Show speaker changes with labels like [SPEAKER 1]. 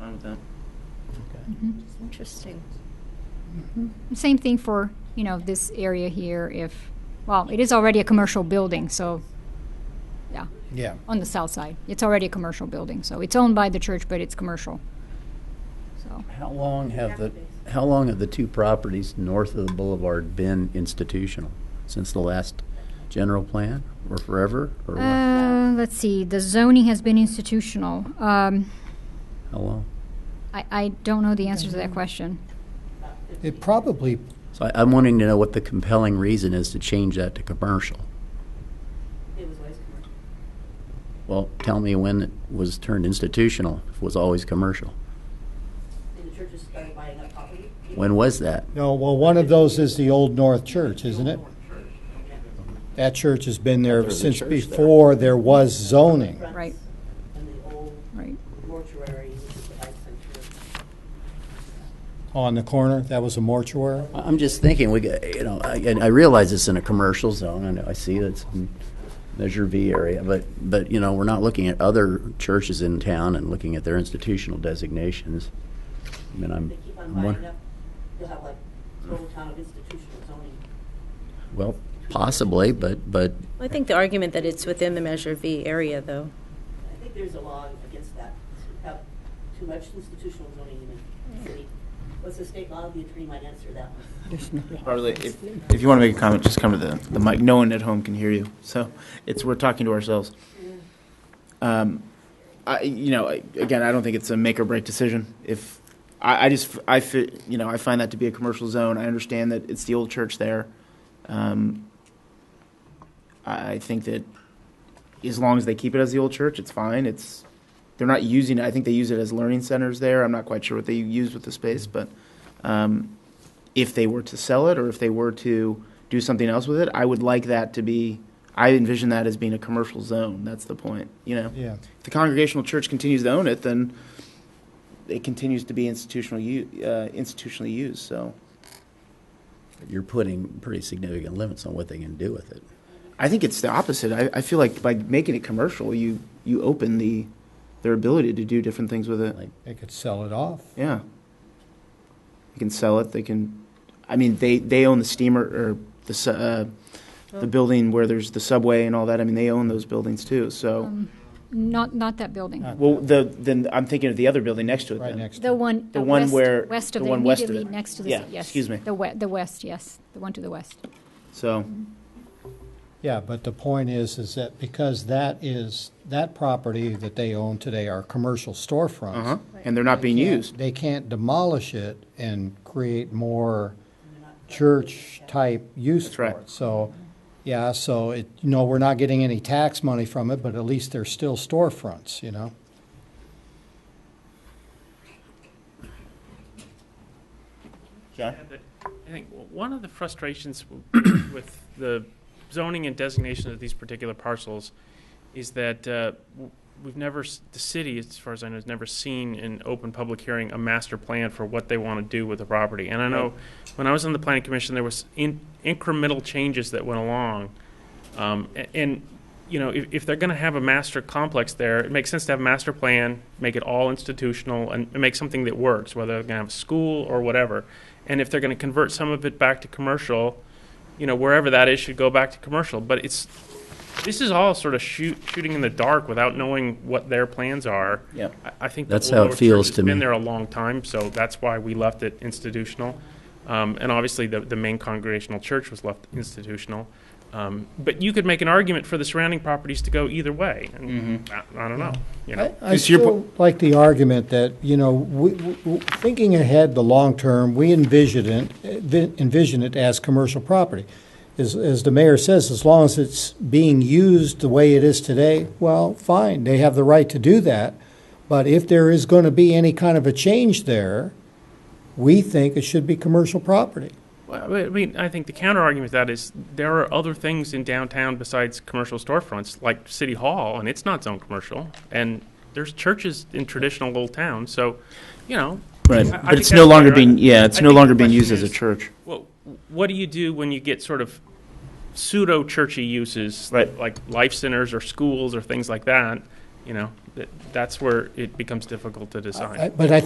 [SPEAKER 1] with that.
[SPEAKER 2] Okay.
[SPEAKER 3] Mhm.
[SPEAKER 4] Interesting.
[SPEAKER 3] Same thing for, you know, this area here if, well, it is already a commercial building, so, yeah,
[SPEAKER 2] Yeah.
[SPEAKER 3] on the south side. It's already a commercial building, so it's owned by the church, but it's commercial. So,
[SPEAKER 2] How long have the, how long have the two properties north of the boulevard been institutional? Since the last general plan or forever or what? How
[SPEAKER 3] uh, let's see, the zoning has been institutional. Um,
[SPEAKER 2] long?
[SPEAKER 3] I, I don't know the answer to
[SPEAKER 1] Mm-hmm.
[SPEAKER 3] that question.
[SPEAKER 5] It probably,
[SPEAKER 2] So I, I'm wanting to know what the compelling reason is to change that to commercial.
[SPEAKER 6] It was always commercial.
[SPEAKER 2] Well, tell me when it was turned institutional, if it was always commercial.
[SPEAKER 6] And the churches started buying up property.
[SPEAKER 2] When was that?
[SPEAKER 5] no, well, one of those is the Old North Church, isn't it? That church has been there
[SPEAKER 2] There's a
[SPEAKER 5] since
[SPEAKER 2] church there.
[SPEAKER 5] before there was zoning.
[SPEAKER 6] Fronts
[SPEAKER 3] Right.
[SPEAKER 6] And the old
[SPEAKER 3] Right.
[SPEAKER 6] mortuary, which is the life center.
[SPEAKER 5] On the corner, that was a mortuary?
[SPEAKER 2] I- I'm just thinking, we, got- you know, I, and I realize it's in a commercial zone, and I see it's in Measure V area, but, but, you know, we're not looking at other churches in town and looking at their institutional designations. I mean, I'm,
[SPEAKER 6] They keep on
[SPEAKER 2] I'm
[SPEAKER 6] buying
[SPEAKER 2] wondering,
[SPEAKER 6] up, you'll have like total town of institutional zoning.
[SPEAKER 2] well, possibly, but, but
[SPEAKER 7] I think the argument that it's within the Measure V area, though.
[SPEAKER 6] I think there's a law against that, to have too much institutional zoning in the city. What's the state law? The attorney might answer that one.
[SPEAKER 1] Harley, if, if you want to make a comment, just come to the, the mic. No one at home can hear you, so it's, we're talking to ourselves. Um, I, you know, I- again, I don't think it's a make or break decision. If, I, I just, I, fi- you know, I find that to be a commercial zone. I understand that it's the old church there. Um, I I think that as long as they keep it as the old church, it's fine. It's, they're not using it. I think they use it as learning centers there. I'm not quite sure what they use with the space, but, um, if they were to sell it or if they were to do something else with it, I would like that to be. I envision that as being a commercial zone. That's the point, you know.
[SPEAKER 5] Yeah.
[SPEAKER 1] If the Congregational Church continues to own it, then it continues to be institutional u- uh, institutionally used. So
[SPEAKER 2] you're putting pretty significant limits on what they can do with it.
[SPEAKER 1] I think it's the opposite. I, I feel like by making it commercial, you you open the their ability to do different things with it.
[SPEAKER 2] Like-
[SPEAKER 5] They could sell it off.
[SPEAKER 1] Yeah. They can sell it. They can. I mean, they, they own the steamer or the su- uh, the building where there's the subway and all that. I mean, they own those buildings too. So,
[SPEAKER 3] Not, not that building.
[SPEAKER 5] Not
[SPEAKER 1] well, the then I'm thinking of the other building next to it.
[SPEAKER 5] Right
[SPEAKER 1] then.
[SPEAKER 5] next
[SPEAKER 3] The
[SPEAKER 5] to it.
[SPEAKER 3] one,
[SPEAKER 1] The
[SPEAKER 3] the
[SPEAKER 1] one
[SPEAKER 3] west,
[SPEAKER 1] where-
[SPEAKER 3] west
[SPEAKER 1] the
[SPEAKER 3] of the,
[SPEAKER 1] one west of
[SPEAKER 3] immediately
[SPEAKER 1] it.
[SPEAKER 3] next to the,
[SPEAKER 1] Yeah,
[SPEAKER 3] yes.
[SPEAKER 1] excuse me.
[SPEAKER 3] The we, the west, yes, the one to the west.
[SPEAKER 1] So,
[SPEAKER 5] Yeah, but the point is, is that because that is, that property that they own today are commercial storefronts.
[SPEAKER 2] Uh-huh.
[SPEAKER 1] uh huh. And they're not being
[SPEAKER 5] can't-
[SPEAKER 1] used.
[SPEAKER 5] They can't demolish it and create more church-type use
[SPEAKER 1] That's
[SPEAKER 5] for
[SPEAKER 1] right.
[SPEAKER 5] it. So, yeah, so it, you know, we're not getting any tax money from it, but at least they're still storefronts, you know?
[SPEAKER 1] John.
[SPEAKER 8] Yeah, but I think w- one of the frustrations w- with the zoning and designation of these particular parcels is that uh, w- we've never, s- the city, as far as I know, has never seen in open public hearing a master plan for what they want to do with the property. And I know, when I was on the planning commission, there was in- incremental changes that went along. Um, a- And, you know, if, if they're going to have a master complex there, it makes sense to have a master plan, make it all institutional, and and make something that works, whether they're going to have a school or whatever. And if they're going to convert some of it back to commercial, you know, wherever that is should go back to commercial. But it's, this is all sort of shoot, shooting in the dark without knowing what their plans are.
[SPEAKER 1] Yeah.
[SPEAKER 8] I, I think
[SPEAKER 2] That's
[SPEAKER 8] the
[SPEAKER 2] how it
[SPEAKER 8] Old North Church
[SPEAKER 2] feels
[SPEAKER 8] has
[SPEAKER 2] to me.
[SPEAKER 8] Been there a long time, so that's why we left it institutional. Um, and obviously, the, the main congregational church was left institutional. Um, but you could make an argument for the surrounding properties to go either way. And I, I don't know. You know.
[SPEAKER 5] I, I
[SPEAKER 1] Because your po-
[SPEAKER 5] still like the argument that, you know, we, w w- thinking ahead the long term, we envision it, envi- envision it as commercial property. As, as the mayor says, as long as it's being used the way it is today, well, fine, they have the right to do that. But if there is going to be any kind of a change there, we think it should be commercial property.
[SPEAKER 8] Well, I mean, I think the counter argument to that is there are other things in downtown besides commercial storefronts, like City Hall, and it's not zoned commercial. And there's churches in traditional old towns, so, you know.
[SPEAKER 1] Right.
[SPEAKER 8] I- I
[SPEAKER 1] but
[SPEAKER 8] think
[SPEAKER 1] it's no
[SPEAKER 8] that's
[SPEAKER 1] longer
[SPEAKER 8] fair.
[SPEAKER 1] being. Yeah, it's
[SPEAKER 8] I
[SPEAKER 1] no
[SPEAKER 8] think the
[SPEAKER 1] longer being
[SPEAKER 8] question
[SPEAKER 1] used as a
[SPEAKER 8] is,
[SPEAKER 1] church.
[SPEAKER 8] Well, what do you do when you get sort of pseudo churchy uses,
[SPEAKER 1] Right.
[SPEAKER 8] like life centers or schools or things like that? You know, that, that's where it becomes difficult to decide.
[SPEAKER 5] I- But I